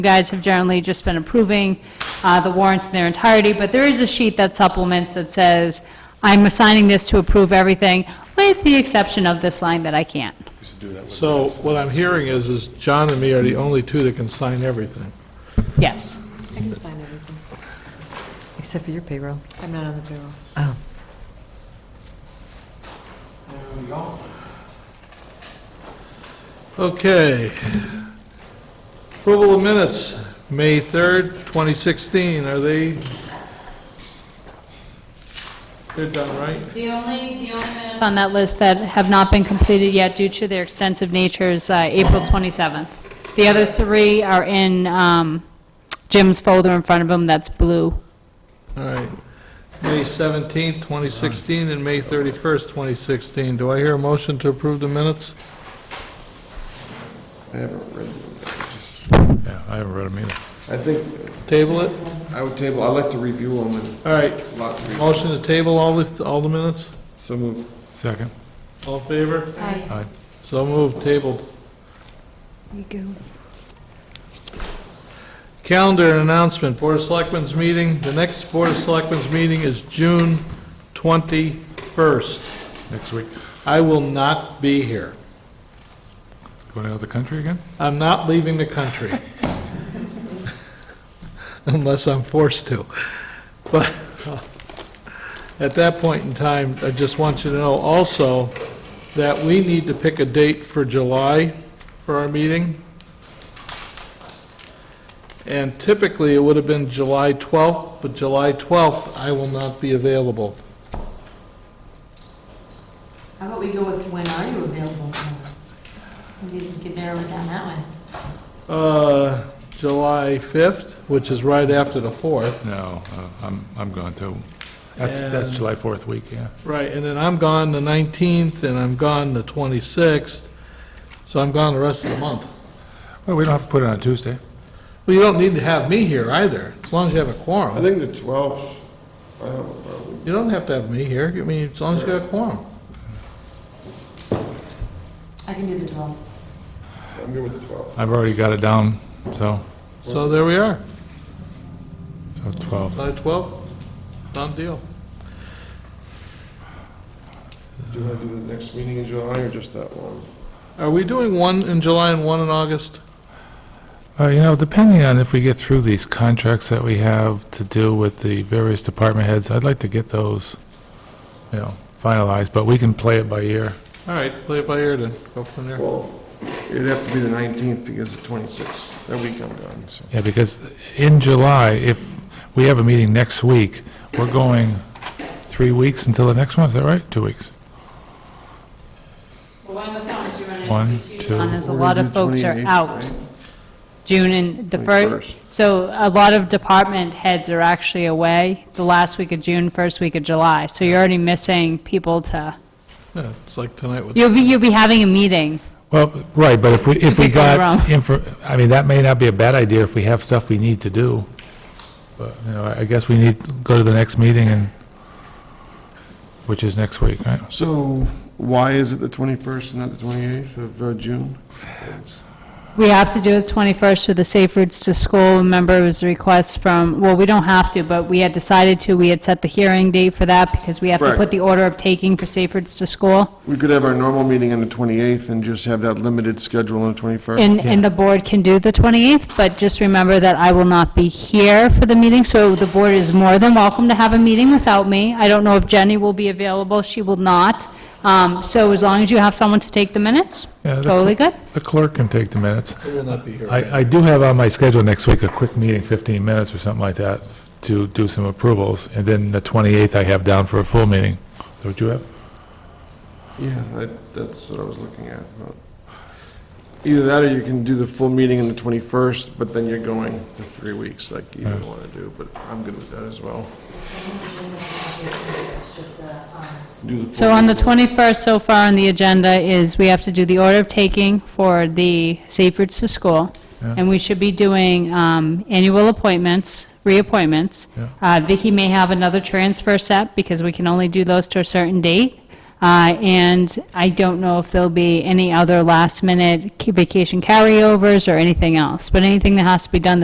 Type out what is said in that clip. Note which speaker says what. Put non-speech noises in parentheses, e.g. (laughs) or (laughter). Speaker 1: You guys have generally just been approving uh, the warrants in their entirety, but there is a sheet that supplements that says, I'm assigning this to approve everything, with the exception of this line that I can't.
Speaker 2: So what I'm hearing is, is John and me are the only two that can sign everything.
Speaker 1: Yes.
Speaker 3: I can sign everything.
Speaker 4: Except for your payroll.
Speaker 3: I'm not on the payroll.
Speaker 4: Oh.
Speaker 2: Okay. Approval of minutes, May 3rd, 2016, are they? They're done, right?
Speaker 1: The only, the only minutes on that list that have not been completed yet due to their extensive nature is uh, April 27th. The other three are in um, Jim's folder in front of him that's blue.
Speaker 2: All right. May 17th, 2016, and May 31st, 2016. Do I hear a motion to approve the minutes?
Speaker 5: I haven't read them.
Speaker 2: Yeah, I haven't read them either.
Speaker 5: I think,
Speaker 2: Table it?
Speaker 5: I would table, I'd like to review them and
Speaker 2: All right.
Speaker 5: lot three.
Speaker 2: Motion to table all the, all the minutes?
Speaker 5: So move.
Speaker 6: Second.
Speaker 2: All in favor?
Speaker 1: Aye.
Speaker 6: Aye.
Speaker 2: So moved, tabled.
Speaker 4: You go.
Speaker 2: Calendar announcement, Board of Selectmen's meeting, the next Board of Selectmen's meeting is June 21st.
Speaker 6: Next week,
Speaker 2: I will not be here.
Speaker 6: going out of the country again?
Speaker 2: I'm not leaving the
Speaker 6: (laughs)
Speaker 2: country. Unless I'm forced to. But uh, at that point in time, I just want you to know also that we need to pick a date for July for our meeting. And typically, it would have been July 12th, but July 12th, I will not be available.
Speaker 3: How about we go with when are you available? Maybe we could narrow it down that way.
Speaker 2: Uh, July 5th, which is right after the 4th.
Speaker 6: No, uh, I'm, I'm gone too. That's, that's
Speaker 2: And-
Speaker 6: July 4th week, yeah.
Speaker 2: Right, and then I'm gone the 19th, and I'm gone the 26th, so I'm gone the rest of the month.
Speaker 6: Well, we don't have to put it on Tuesday.
Speaker 2: Well, you don't need to have me here either, as long as you have a
Speaker 5: I
Speaker 2: quorum.
Speaker 5: think the 12th, I don't know, probably.
Speaker 2: You don't have to have me here, I mean, as long as you have a quorum.
Speaker 3: I can do the 12.
Speaker 5: I'm good with the 12th.
Speaker 6: I've already got it down, so,
Speaker 2: So there we are,
Speaker 6: so 12.
Speaker 2: July 12th, done deal.
Speaker 5: Do you want to do the next meeting in July or just that one?
Speaker 2: Are we doing one in July and one in August?
Speaker 6: Uh, you know, depending on if we get through these contracts that we have to do with the various department heads, I'd like to get those, you know, finalized, but we can play it by ear.
Speaker 2: All right, play it by ear then, go from there.
Speaker 5: Well, it'd have to be the 19th because the 26th, that week I'm gone, so.
Speaker 6: Yeah, because in July, if we have a meeting next week, we're going three weeks until the next one, is that right? Two weeks? One, two.
Speaker 1: And there's a
Speaker 5: We're
Speaker 1: lot
Speaker 5: gonna
Speaker 1: of
Speaker 5: do
Speaker 1: folks are
Speaker 5: 28th,
Speaker 1: out.
Speaker 5: right?
Speaker 1: June and the
Speaker 5: 21st.
Speaker 1: first, so a lot of department heads are actually away the last week of June, first week of July. So you're already missing people to,
Speaker 2: Yeah, It's like tonight with,
Speaker 1: you'll be, you'll be having a meeting.
Speaker 6: Well, right, but if we, if we
Speaker 1: People are wrong.
Speaker 6: got, info- I mean, that may not be a bad idea if we have stuff we need to do. But, you know, I- I guess we need, to go to the next meeting and, which is next week, right?
Speaker 5: So why is it the 21st and not the 28th of uh, June?
Speaker 1: We have to do it 21st for the Safe Routes to School. Remember, it was a request from, well, we don't have to, but we had decided to, we had set the hearing date for that because we have to
Speaker 5: Right.
Speaker 1: put the order of taking for Safe Routes to School.
Speaker 5: We could have our normal meeting on the 28th and just have that limited schedule on the 21st.
Speaker 1: And, and the board can do the 28th, but just remember that I will not be here for the meeting, so the board is more than welcome to have a meeting without me. I don't know if Jenny will be available, she will not. Um, So as long as you have someone to take the minutes,
Speaker 6: Yeah, the-
Speaker 1: totally good.
Speaker 6: The clerk can take the minutes.
Speaker 2: I will not be here.
Speaker 6: I, I do have on my schedule next week a quick meeting, 15 minutes or something like that, to do some approvals, and then the 28th I have down for a full meeting. Is that what you have?
Speaker 5: Yeah, that- that's what I was looking at. but- Either that, or you can do the full meeting on the 21st, but then you're going to three weeks, like you don't want to do, but I'm good with that as well.
Speaker 3: It's just the, um,
Speaker 5: Do the full
Speaker 1: So on the
Speaker 5: meeting.
Speaker 1: 21st, so far on the agenda is we have to do the order of taking for the Safe Routes to School,
Speaker 6: Yeah.
Speaker 1: and we should be doing um, annual appointments, reappointments.
Speaker 6: Yeah.
Speaker 1: Uh, Vicky may have another transfer set, because we can only do those to a certain date. Uh, And I don't know if there'll be any other last-minute vacation carryovers or anything else, but anything that has to be done